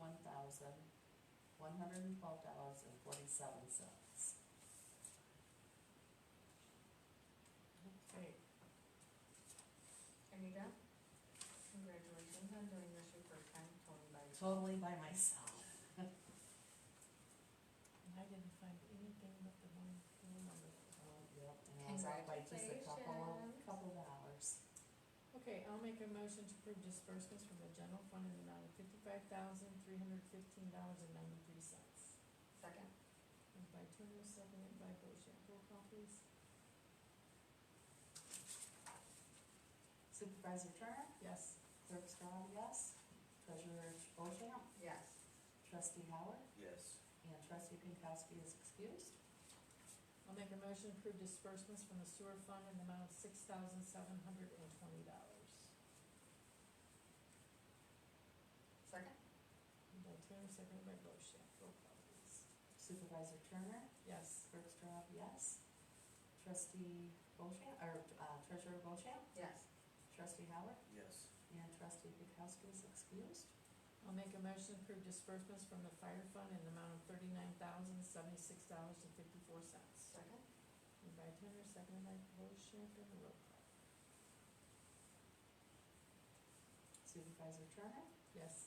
thousand, one hundred and twelve dollars and forty-seven cents. Okay. Anita, congratulations on doing this your first time, totally by yourself. Totally by myself. And I didn't find anything but the one, the one number. Yep, and I was up by just a couple, Congratulations. couple dollars. Okay, I'll make a motion to approve disbursements from the general fund in the amount of fifty-five thousand, three hundred fifteen dollars and ninety-three cents. Second, Moved by Turner, seconded by Bochamp, roll call please. Supervisor Turner, Yes. clerk Strad, yes. Treasurer Bochamp, yes. trustee Howard, Yes. and trustee Pankowski is excused. I'll make a motion to approve disbursements from the sewer fund in the amount of six thousand, seven hundred and twenty dollars. Second, Moved by Turner, seconded by Bochamp, roll call please. Supervisor Turner, Yes. clerk Strad, yes. Trustee Bochamp, or uh, treasurer Bochamp, yes. trustee Howard, Yes. and trustee Pankowski is excused. I'll make a motion to approve disbursements from the fire fund in the amount of thirty-nine thousand, seventy-six dollars and fifty-four cents. Second, Moved by Turner, seconded by Bochamp, and roll call. Supervisor Turner, Yes.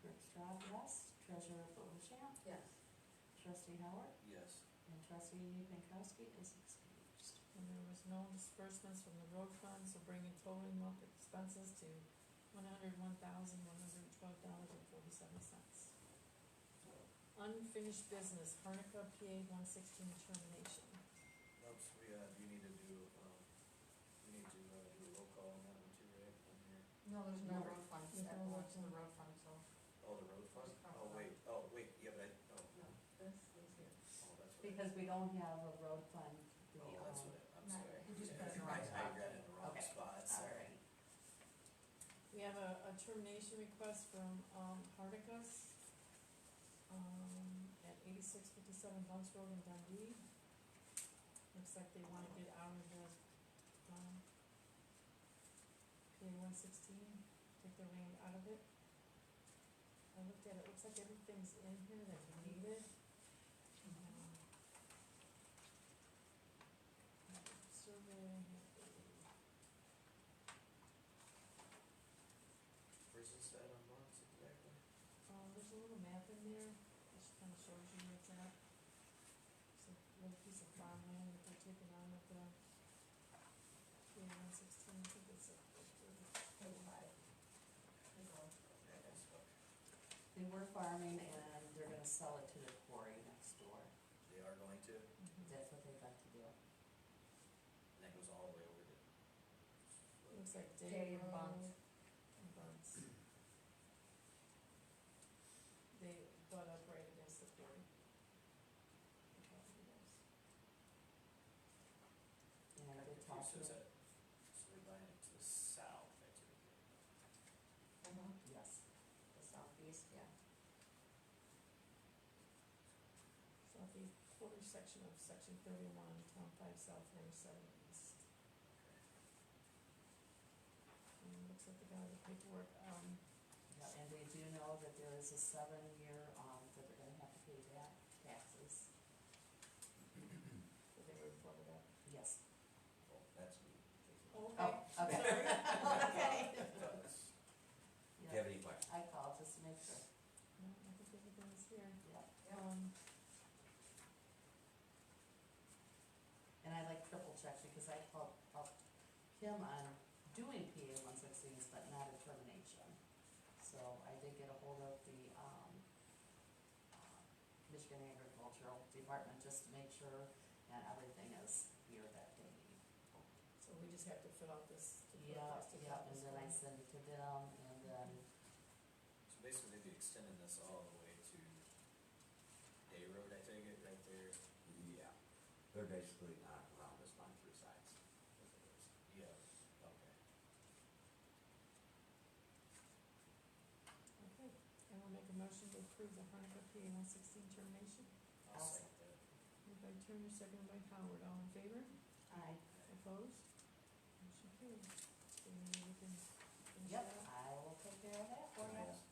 clerk Strad, yes. Treasurer Bochamp, yes. trustee Howard, Yes. and trustee Pankowski is excused. And there was no disbursements from the road fund, so bringing total month expenses to one hundred one thousand, one hundred twelve dollars and forty-seven cents. Unfinished business, Harnica PA one sixteen termination. Oops, we, uh, you need to do, um, we need to, uh, do a roll call on that one too, right? On here. No, there's No. no road fund, There's that no road belongs to the fund. road fund, so, Oh, the road fund? Just talk about Oh, wait, oh, wait, yeah, but I, oh, oh, no, this is here. that's what. Because we don't have a road fund, we, Oh, um, that's what, I- I'm No, sorry. you just Yeah, put it in the wrong I- spot. I read it in the wrong Okay. spot, sorry. alright, We have a, a termination request from, um, Hardicus, um, at eighty-six fifty-seven Bunts Road in Dundee. Looks like they wanna get out of the, um, PA one sixteen, take their land out of it. I looked at it, looks like everything's in here that we needed. Um, Survey, Where's this at on Lawrence exactly? Um, there's a little map in there, which kind of shows you where it's at. It's a little piece of farmland that they're taking on with the, yeah, one sixteen, I think it's a, Table five. Table one. Yeah, that's what- they were farming and they're gonna sell it to the quarry next door, They are going to, it that's what they'd like to do. and that goes all the way over to. looks like Day Dave Road. and Bunt. and Bunts. They butt up right against the quarry. The property does. And I did talk to So is them, that, so they're buying it to the south, that's it. Mhm. yes, The southeast, yeah. Southeast quarter section of section thirty-one, town five south, range seven east. And it looks like they got all the paperwork, um, Yeah, and they do know that there is a seven-year, um, that they're gonna have to pay back taxes, that they reported up. yes. Well, that's me. Okay, Oh, okay. sorry. Okay. That's- Yeah, Do you have any questions? I called just to make sure, No, I think everything's here. yeah, Um, and I like triple check because I called, up him on doing PA one sixteens, but not a termination. So I did get a hold of the, um, uh, Michigan Agricultural Department just to make sure that everything is here that they need. so we just have to fill out this. to put Yeah, this to yeah, this and then I one. send it to them and then, So basically, they'd be extending this all the way to Day Road, I take it, right there? Yeah, they're basically not around us on three sides. is what it is. Yeah. Okay. Okay, and we'll make a motion to approve the Hanukkah PA one sixteen termination. I'll Awesome. second that. Moved by Turner, seconded by Howard, all in favor? I, Opposed? Motion carried. Do we need anything? yep, I will take care of that for Can I you. ask